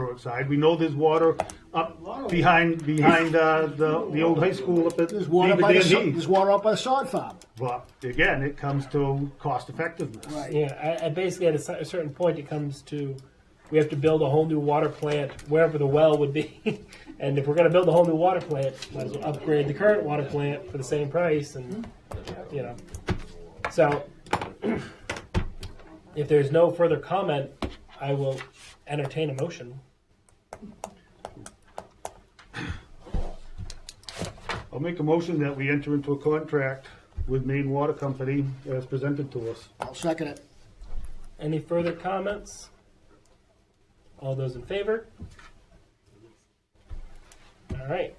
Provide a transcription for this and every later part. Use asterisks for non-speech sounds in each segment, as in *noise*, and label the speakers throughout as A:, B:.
A: Brookside. We know there's water up behind, behind, uh, the, the old high school up at
B: There's water up by the,
A: David
B: sa-
A: Dan
B: there's
A: Dean's.
B: water up by the sod farm.
A: But again, it comes to cost effectiveness.
C: Yeah, I, I basically at a, cer- a certain point it comes to we have to build a whole new water plant wherever the well would be, *laughs* and if we're going to build a whole new water plant, might as well upgrade the current water plant for the same price, and you know, so *clears throat* if there's no further comment, I will entertain a motion.
A: I'll make a motion that we enter into a contract with Maine Water Company as presented to us.
B: I'll second it.
C: Any further comments? All those in favor? All right.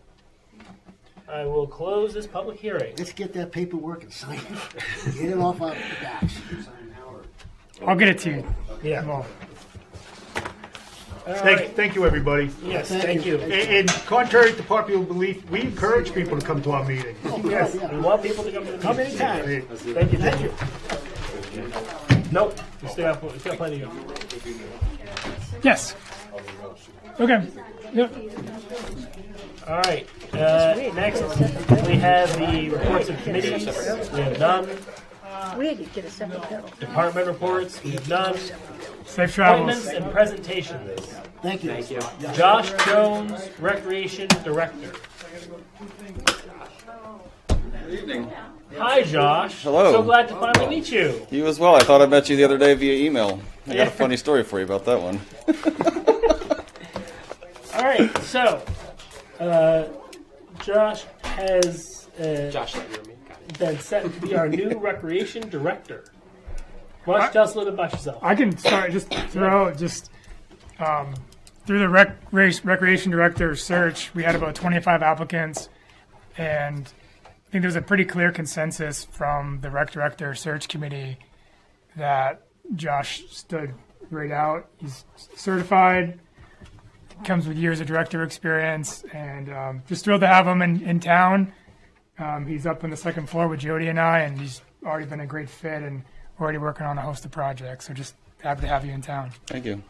C: I will close this public hearing.
B: Let's get that paperwork and sign *laughs* it. Get it off our backs.
D: I'll get it to you.
C: Yeah.
D: Well,
C: All
A: Thank,
C: right.
A: thank you, everybody.
C: Yes,
B: Thank
C: thank
B: you.
C: you.
A: And- And contrary to popular belief, we encourage people to come to our meeting.
C: Yes,
B: Yeah.
C: we want people to come to the
B: Come anytime.
A: Hey,
C: Thank you, thank you. Nope, we still have, we still have plenty of you.
D: yes. Okay. Yep.
C: All right, uh, next, we have the reports of committees. We have none.
E: We need to get a separate bill.
C: Department reports, we have none.
D: Safe
C: Appointments
D: travels.
C: and presentations.
B: Thank you. Thank you.
C: Josh Jones, Recreation Director. Hi, Josh.
F: Hello.
C: So glad to finally meet you.
F: You as well. I thought I met you the other day via email. I got a funny story for you about that one.
C: All right, so uh, Josh has uh,
G: Josh, that you were me. Got it.
C: been set to be our new recreation director. Why don't you tell us a little bit about yourself?
D: I can start just throw just um, through the rec- race, recreation director search. We had about 25 applicants, and I think there was a pretty clear consensus from the rec director search committee that Josh stood right out. He's certified, comes with years of director experience, and um, just thrilled to have him in, in town. Um, he's up on the second floor with Jody and I, and he's already been a great fit and already working on a host of projects. So just happy to have you in town.
F: Thank you.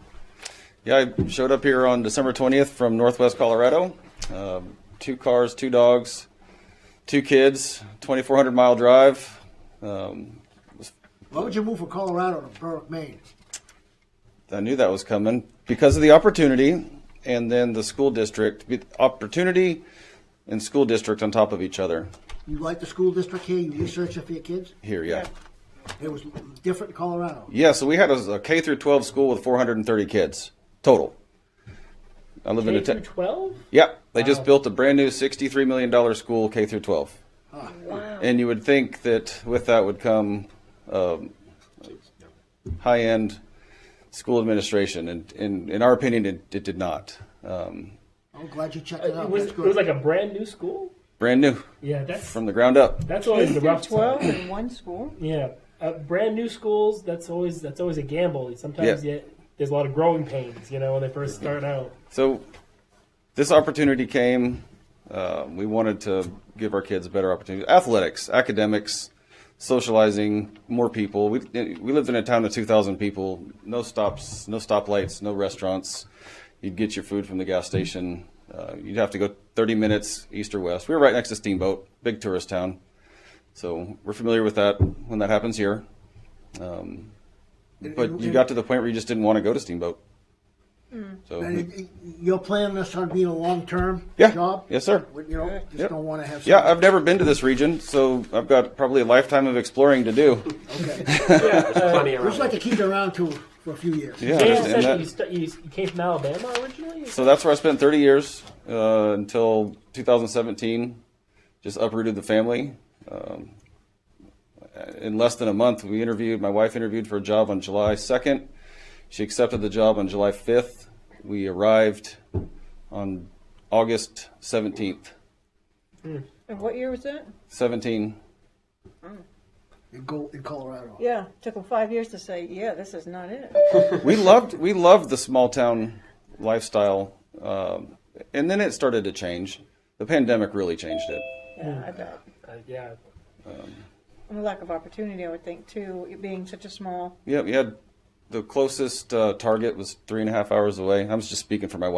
F: Yeah, I showed up here on December 20th from Northwest Colorado. Um, two cars, two dogs, two kids, 2,400 mile drive. Um,
B: Why would you move from Colorado to Berwick, Maine?
F: I knew that was coming because of the opportunity and then the school district. The Opportunity and school district on top of each other
B: You like the school district here? You research it for your kids?
F: here, yeah.
B: It was different in Colorado.
F: Yeah, so we had a, a K through 12 school with 430 kids total. I live in
C: K
F: a
C: through
F: town.
C: twelve.
F: Yep, they just built a brand new sixty-three million dollar school K through twelve. And you would think that with that would come um, high-end school administration, and, and in our opinion, it, it did not. Um,
B: I'm glad you checked it out.
C: It was,
B: Oh, That's
C: it
B: good.
C: was like a brand new school.
F: brand new
C: Yeah, that's
F: from the ground up.
C: that's always the rough twelve.
E: in one school?
C: Yeah, uh, brand new schools. That's always that's always a gamble. Sometimes
F: Yeah.
C: yeah, there's a lot of growing pains. You know, when they first start out.
F: So this opportunity came. Uh, we wanted to give our kids a better opportunity. Athletics, academics, socializing, more people. We, we lived in a town of 2,000 people. No stops, no stoplights, no restaurants. You'd get your food from the gas station. Uh, you'd have to go 30 minutes east or west. We were right next to Steamboat, big tourist town. So we're familiar with that when that happens here. Um, but you got to the point where you just didn't want to go to Steamboat. So we-
B: And it- You're planning this on being a long-term
F: yeah.
B: job?
F: Yes, sir.
B: You know, just
F: Yep.
B: don't want to have.
F: Yeah, I've never been to this region, so I've got probably a lifetime of exploring to do.
G: There's plenty
B: We
G: around.
B: just like to keep it around too for a few years.
F: Yeah, I
C: Dan said
F: understand
C: that you,
F: that.
C: st- you, s- you came from Alabama originally.
F: So that's where I spent 30 years uh, until 2017. Just uprooted the family. Um, in less than a month, we interviewed. My wife interviewed for a job on July 2nd. She accepted the job on July 5th. We arrived on August 17th.
E: And what year was that?
F: 17.
B: In, Go, in Colorado.
E: Yeah, took them five years to say, yeah, this is not it.
F: we loved we loved the small town lifestyle, um, and then it started to change. The pandemic really changed it.
E: Yeah, I bet.
C: Uh, yeah,
E: And the lack of opportunity, I would think, too, it being such a small.
F: Yeah, we had the closest uh, target was three and a half hours away. I'm just speaking for my wife.